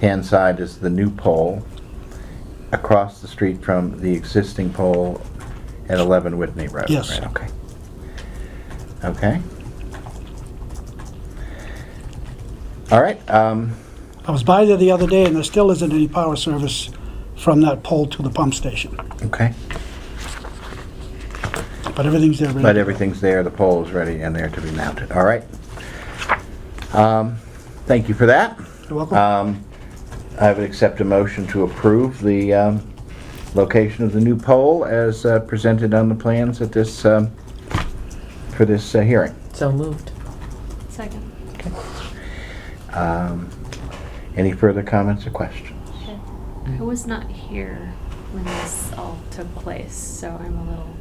hand side is the new pole, across the street from the existing pole at 11 Whitney Road. Yes. right, Okay. Okay. All right, um, I was by there the other day, and there still isn't any power service from that pole to the pump station, okay. but everything's there. ready. But everything's there, the pole is ready and there to be mounted, all right? Um, Thank you for that. You're welcome. Um, I would accept a motion to approve the um, location of the new pole as uh, presented on the plans at this, um, for this uh, hearing. So moved. Second. Um, Any further comments or questions? Mm. I was not here when this all took place, so I'm a little,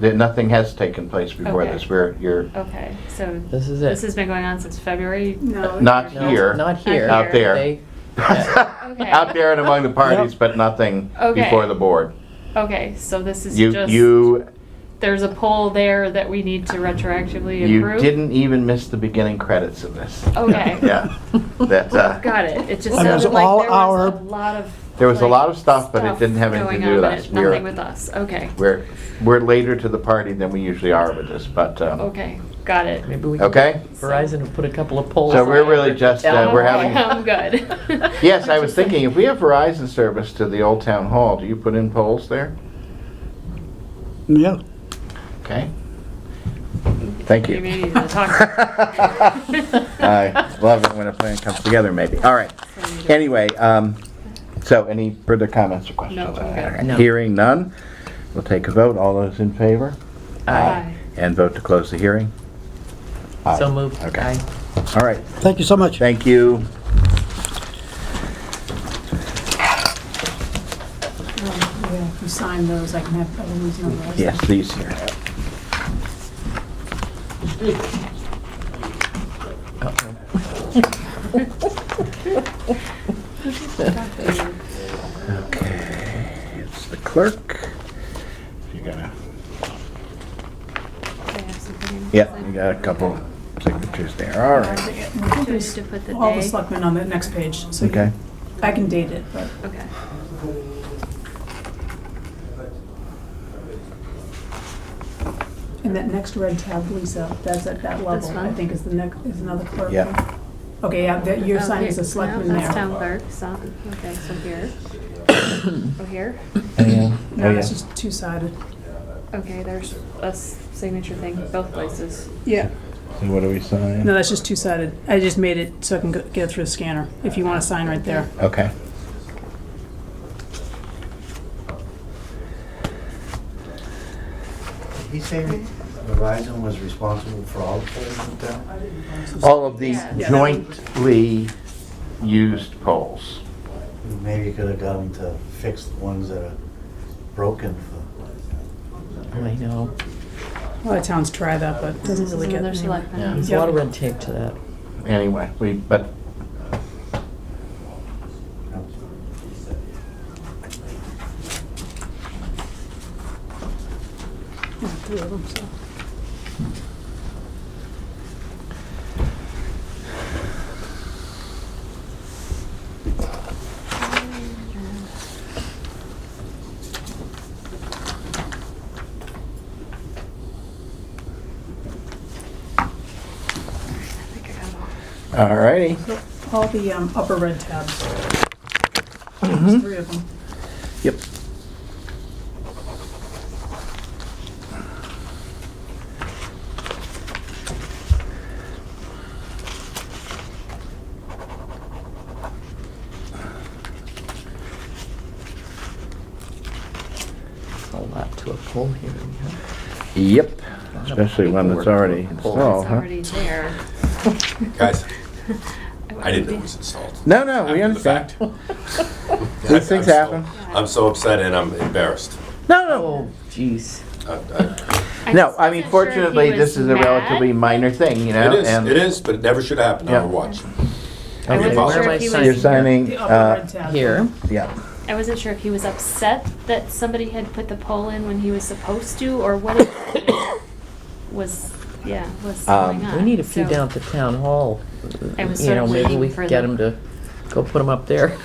There- Nothing has taken place before Okay. Oh, this, where you're, okay, so. This is it. This has been going on since February? No. not No, here. Not here. Not Out there. They- Okay. Out there and among the parties, but nothing Okay. before the board. Okay, so this is You, just, you there's a poll there that we need to retroactively You approve? didn't even miss the beginning credits of this. Okay. Yeah, Oh, that, uh, Got it. It just And there's sounded like all there was our- a lot of. There was a like, lot of stuff, but it didn't have stuff anything to going do with on, but us. it- We were- Nothing with us. Okay, we're, we're later to the party than we usually are with this, but, um, okay, got it. Maybe we can okay? Verizon will put a couple of poles. So we're up really there. just, Tell uh, them we're why. having- I'm good. Yes, I was thinking, if we have Verizon service to the old town hall, do you put in polls there? Yeah, Okay? Thank you. Maybe the talk- I love it when a plan comes together, maybe. All right. Anyway, um, so any further comments or questions? No, I'm good. All right. No. Hearing none, we'll take a vote. All those in favor? Aye. And vote to close the hearing? Aye. So moved. Okay. Aye. All right, thank you so much. thank you. Yeah, if you sign those, I can have Eloise number. Yes, these here. Okay, it's the clerk. You got a, yeah, you got a couple signatures there, all right. Choose to put the All the day. selectmen on the next page, so Okay, you- I can date it, but Okay. in that next red tab, Lisa, that's at that level, I one? think is the next, is another clerk. Yeah. one. Okay, yeah, that, your Oh, sign here- is a selectman no, That's there. town clerk, so, okay, so here. Oh, here? No, Oh, that's yeah. just two-sided. Okay, there's a s- signature thing, both places. Yeah. so what do we No, sign? that's just two-sided. I just made it so I can go- get it through the scanner, if you want to sign right there. Okay. He's saying Verizon was responsible for all the polls in town? All of the Yeah. jointly used polls. Maybe you could have got them to fix the ones that are broken for I know. A lot of towns try that, but it doesn't really get Another anywhere. selectman. Yeah. There's a lot of red tape to that. Anyway, we, but, Yeah, three of them, so. I think I got all. all righty. All the um, upper red tabs. Mm-hmm. There's three of them. Yep. It's a lot to a poll hearing, huh? Yep, especially one that's already It's installed, huh? already there. Guys, would I didn't know be- it was installed. No, no, we After the understand. fact. These things I'm so- happen. I'm so upset and I'm embarrassed. No, no. Oh, jeez. I- I- I No, just I mean, wasn't sure if he fortunately, was this is a mad. relatively minor thing, you know? It is, and it is, but it never should happen Yeah. on a watch. I wasn't Where sure am I if he signing? You're was, signing, The upper uh, red tab. Here. yeah. I wasn't sure if he was upset that somebody had put the poll in when he was supposed to, or what it was, yeah, was Um, going on. We need a few So- down at the town hall. I was You sort know, of maybe waiting we for could get the- them to Go put them up there.